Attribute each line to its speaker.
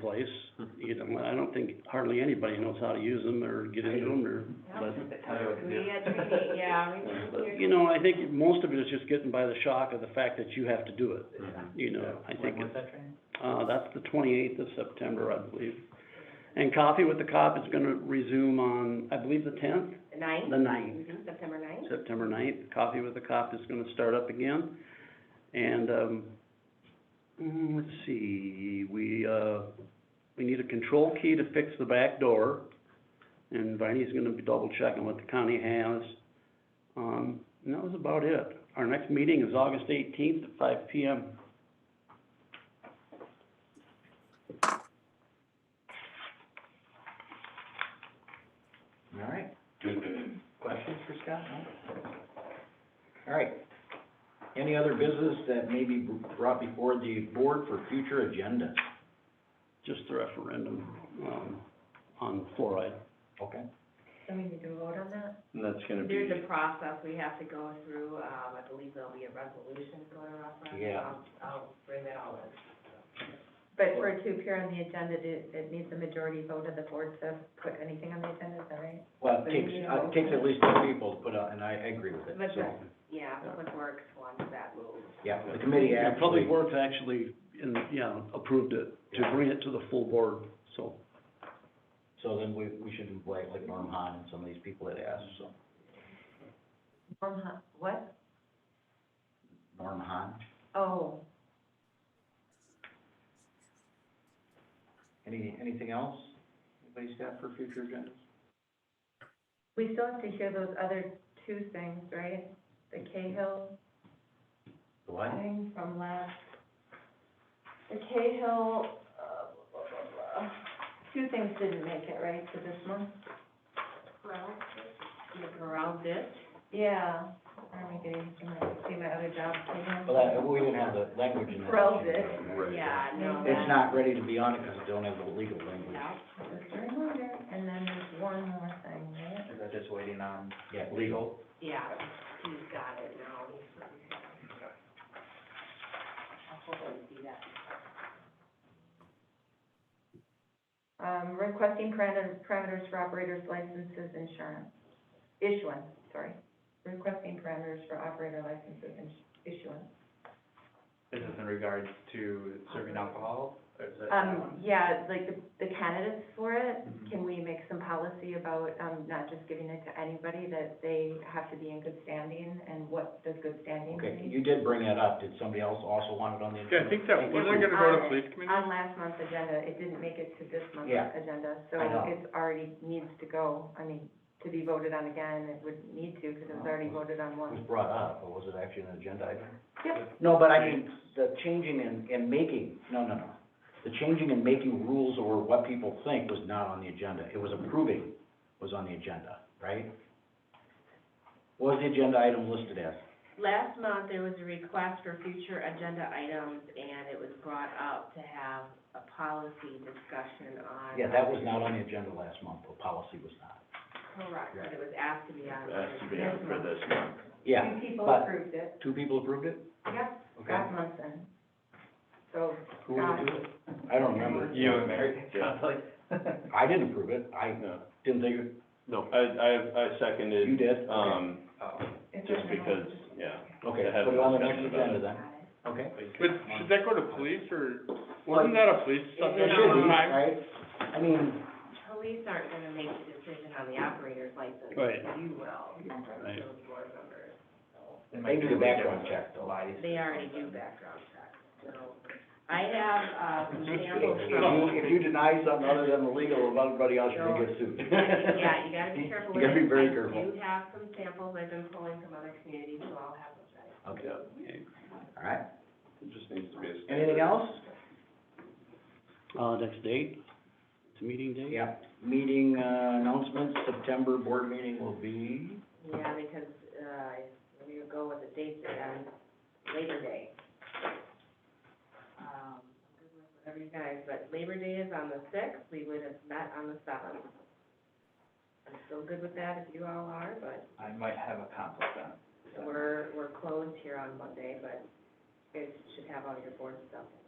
Speaker 1: place. You know, I don't think hardly anybody knows how to use them or get into them or, but,
Speaker 2: We had training, yeah, we did.
Speaker 1: but, you know, I think most of it is just getting by the shock of the fact that you have to do it, you know, I think.
Speaker 3: When was that training?
Speaker 1: Uh, that's the twenty-eighth of September, I believe. And Coffee with the Cop is gonna resume on, I believe, the tenth,
Speaker 2: The ninth?
Speaker 1: the ninth.
Speaker 2: Mhm, September ninth?
Speaker 1: September ninth, Coffee with the Cop is gonna start up again. And, um, mm, let's see, we, uh, we need a control key to fix the back door. And Viney's gonna be double checking what the county has. Um, and that was about it. Our next meeting is August eighteenth at five P M.
Speaker 3: All right. Questions for Scott? No? All right. Any other business that may be brought before the board for future agendas?
Speaker 1: just the referendum, um, on fluoride.
Speaker 3: Okay.
Speaker 2: So we need to vote on that?
Speaker 4: And that's gonna be,
Speaker 2: There's a process we have to go through, um, I believe there'll be a resolution to go to referendum.
Speaker 3: Yeah.
Speaker 2: I'll- Um, I'll bring that all in. But for it to appear on the agenda, it, it needs a majority vote of the board to put anything on the agenda, is that right?
Speaker 3: Well, it takes, uh, it takes at least two people to put out, and I agree with it,
Speaker 2: But
Speaker 3: so,
Speaker 2: the- Yeah, Public Works wants that move.
Speaker 3: yeah, the committee
Speaker 1: Yeah,
Speaker 3: actually,
Speaker 1: Public Works actually, in, yeah, approved it, to bring it to the full board, so.
Speaker 3: so then we, we should invite like Norm Hahn and some of these people that asked, so,
Speaker 2: Norm Hahn, what?
Speaker 3: Norm Hahn.
Speaker 2: Oh,
Speaker 3: Any, anything else anybody's got for future agendas?
Speaker 2: we still have to hear those other two things, right? The Cahill
Speaker 3: The what?
Speaker 2: thing from last, the Cahill, uh, blah, blah, blah, blah. Two things didn't make it, right, to this one? Corral ditch? Yeah, I'm getting, see my other job.
Speaker 3: Well, that, we didn't have the language in that.
Speaker 2: Grilled it.
Speaker 4: Right.
Speaker 2: Yeah, no, that.
Speaker 3: It's not ready to be on it because it don't have the legal language.
Speaker 2: Yeah. And then there's one more thing, right?
Speaker 3: Is that just waiting on? Yeah, legal.
Speaker 2: Yeah, he's got it now. I'll hold on to see that. Um, requesting parameters, parameters for operators licenses insurance, issuance, sorry. Requesting parameters for operator licenses ins- issuance.
Speaker 4: this is in regards to serving alcohol, or is that?
Speaker 2: Um, yeah, like the, the candidates for it,
Speaker 3: Mm-hmm.
Speaker 4: Mhm.
Speaker 2: can we make some policy about, um, not just giving it to anybody, that they have to be in good standing, and what does good standing mean?
Speaker 3: Okay, you did bring that up. Did somebody else also want it on the
Speaker 5: Yeah,
Speaker 3: agenda?
Speaker 5: I think that, wasn't
Speaker 2: It was
Speaker 5: it gonna go
Speaker 2: on-
Speaker 5: to police
Speaker 3: Um,
Speaker 5: committee?
Speaker 2: On last month's agenda, it didn't make it to this month's
Speaker 3: Yeah,
Speaker 2: agenda, so
Speaker 3: I know.
Speaker 2: it's already needs to go, I mean, to be voted on again, it would need to, because it was
Speaker 3: Oh.
Speaker 2: already voted on
Speaker 3: It was
Speaker 2: once.
Speaker 3: brought up, but was it actually an agenda item?
Speaker 2: Yep,
Speaker 3: No, but I mean, the changing and, and making, no, no, no. The changing and making rules or what people think was not on the agenda. It was approving was on the agenda, right? What Was the agenda item listed as?
Speaker 6: Last month, there was a request for future agenda items, and it was brought up to have a policy discussion on.
Speaker 3: Yeah, that was not on the agenda last month. The policy was not.
Speaker 6: Correct, but it was asked to be on.
Speaker 4: Has to be on for this month.
Speaker 3: Yeah,
Speaker 2: two people
Speaker 3: but-
Speaker 2: approved it,
Speaker 3: two people approved it?
Speaker 2: yep,
Speaker 3: Okay.
Speaker 2: last month then. So, um,
Speaker 3: Who was
Speaker 2: Scott,
Speaker 3: it? I don't remember.
Speaker 4: You and Mary?
Speaker 3: I didn't approve it, I
Speaker 7: No,
Speaker 3: didn't think, it-
Speaker 7: no, I, I, I seconded.
Speaker 3: you did?
Speaker 7: Um,
Speaker 2: it's
Speaker 7: just
Speaker 2: just an
Speaker 7: because,
Speaker 2: old-
Speaker 7: yeah.
Speaker 3: Okay,
Speaker 7: to have
Speaker 3: put it on the
Speaker 7: a
Speaker 3: next
Speaker 7: discussion about
Speaker 3: agenda
Speaker 7: it.
Speaker 3: then, okay?
Speaker 5: But should that go to police or,
Speaker 3: Well,
Speaker 5: wasn't that a police
Speaker 3: It
Speaker 5: subject?
Speaker 3: should be,
Speaker 5: Time?
Speaker 3: right? I mean,
Speaker 6: Police aren't gonna make the decision on the operator's license.
Speaker 1: Right.
Speaker 6: You will,
Speaker 1: Right.
Speaker 6: those board members.
Speaker 3: they do the background check though.
Speaker 6: They already do background checks, so. I have, uh, examples
Speaker 3: If you,
Speaker 6: from,
Speaker 3: if you deny something other than the legal of everybody else, you're gonna get sued.
Speaker 6: yeah, you gotta be careful with
Speaker 3: You
Speaker 6: it.
Speaker 3: gotta be very
Speaker 6: I
Speaker 3: careful.
Speaker 6: do have some samples I've been pulling from other communities, so I'll have those
Speaker 3: Okay,
Speaker 6: ready.
Speaker 3: all right,
Speaker 7: It just needs to be a.
Speaker 3: anything else?
Speaker 1: Uh, next date, it's meeting date?
Speaker 3: Yeah, meeting, uh, announcements, September board meeting will be,
Speaker 6: Yeah, because, uh, we would go with the dates and Labor Day. Um, whatever you guys, but Labor Day is on the sixth, we would have met on the seventh. I'm still good with that if you all are, but
Speaker 4: I might have a conflict on it.
Speaker 6: we're, we're closed here on Monday, but you guys should have all your board stuff in